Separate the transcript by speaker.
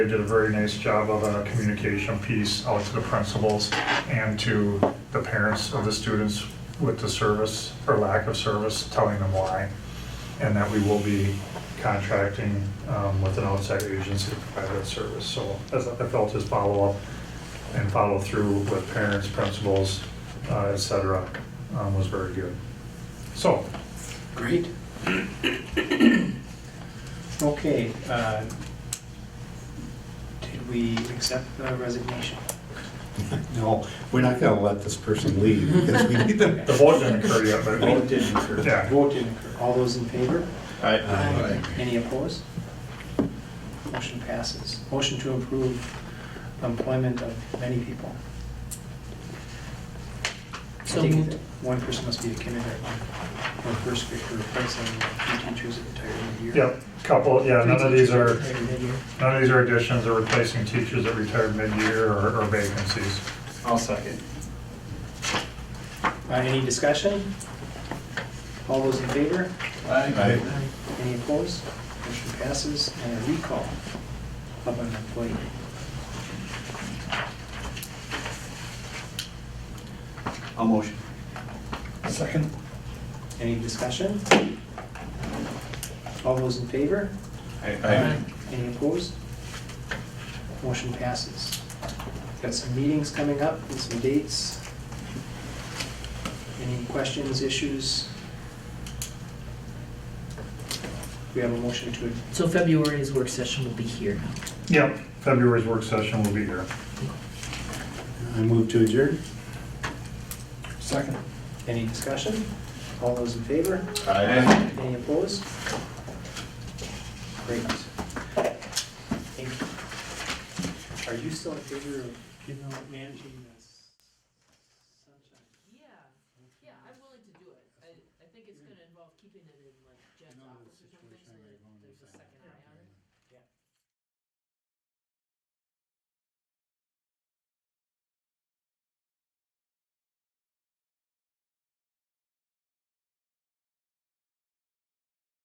Speaker 1: They did a very nice job of a communication piece out to the principals and to the parents of the students with the service or lack of service, telling them why. And that we will be contracting um, with an outside agency to provide that service. So as I felt his follow-up and follow-through with parents, principals, uh, et cetera, um, was very good. So,
Speaker 2: Great. Okay, uh, did we accept the resignation?
Speaker 3: No, we're not gonna let this person leave because we need them.
Speaker 1: the vote didn't occur yet, but
Speaker 2: Vote didn't occur.
Speaker 1: Yeah.
Speaker 2: Vote didn't occur. All those in favor?
Speaker 3: Aye.
Speaker 2: Any opposed? Motion passes. Motion to approve employment of many people. I
Speaker 4: So
Speaker 2: think
Speaker 4: moved.
Speaker 2: that One person must be a kindergarten or first grader, replacing two teachers that retired in a year.
Speaker 1: Yep, couple, yeah,
Speaker 2: Three
Speaker 1: none of these
Speaker 2: teachers
Speaker 1: are,
Speaker 2: that retired in a year.
Speaker 1: none of these are additions or replacing teachers that retired mid-year or or vacancies.
Speaker 5: I'll second.
Speaker 2: Uh, Any discussion? All those in favor?
Speaker 3: Aye.
Speaker 2: Any opposed? Motion passes, and a recall of an employee.
Speaker 5: I'll motion.
Speaker 1: Second.
Speaker 2: Any discussion? All those in favor? Any opposed? Motion passes. Got some meetings coming up and some dates. Any questions, issues? We have a motion to,
Speaker 4: So February's work session will be here now.
Speaker 1: Yep, February's work session will be here.
Speaker 3: I move to adjourn.
Speaker 5: Second.
Speaker 2: any discussion? All those in favor?
Speaker 5: Aye.
Speaker 2: Any opposed? Great. Thank you. Are you still in favor of, you know, managing this sunshine?
Speaker 4: Yeah, yeah, I'm willing to do it. I, I think it's gonna involve keeping it in like Jen's office or something, so that there's a second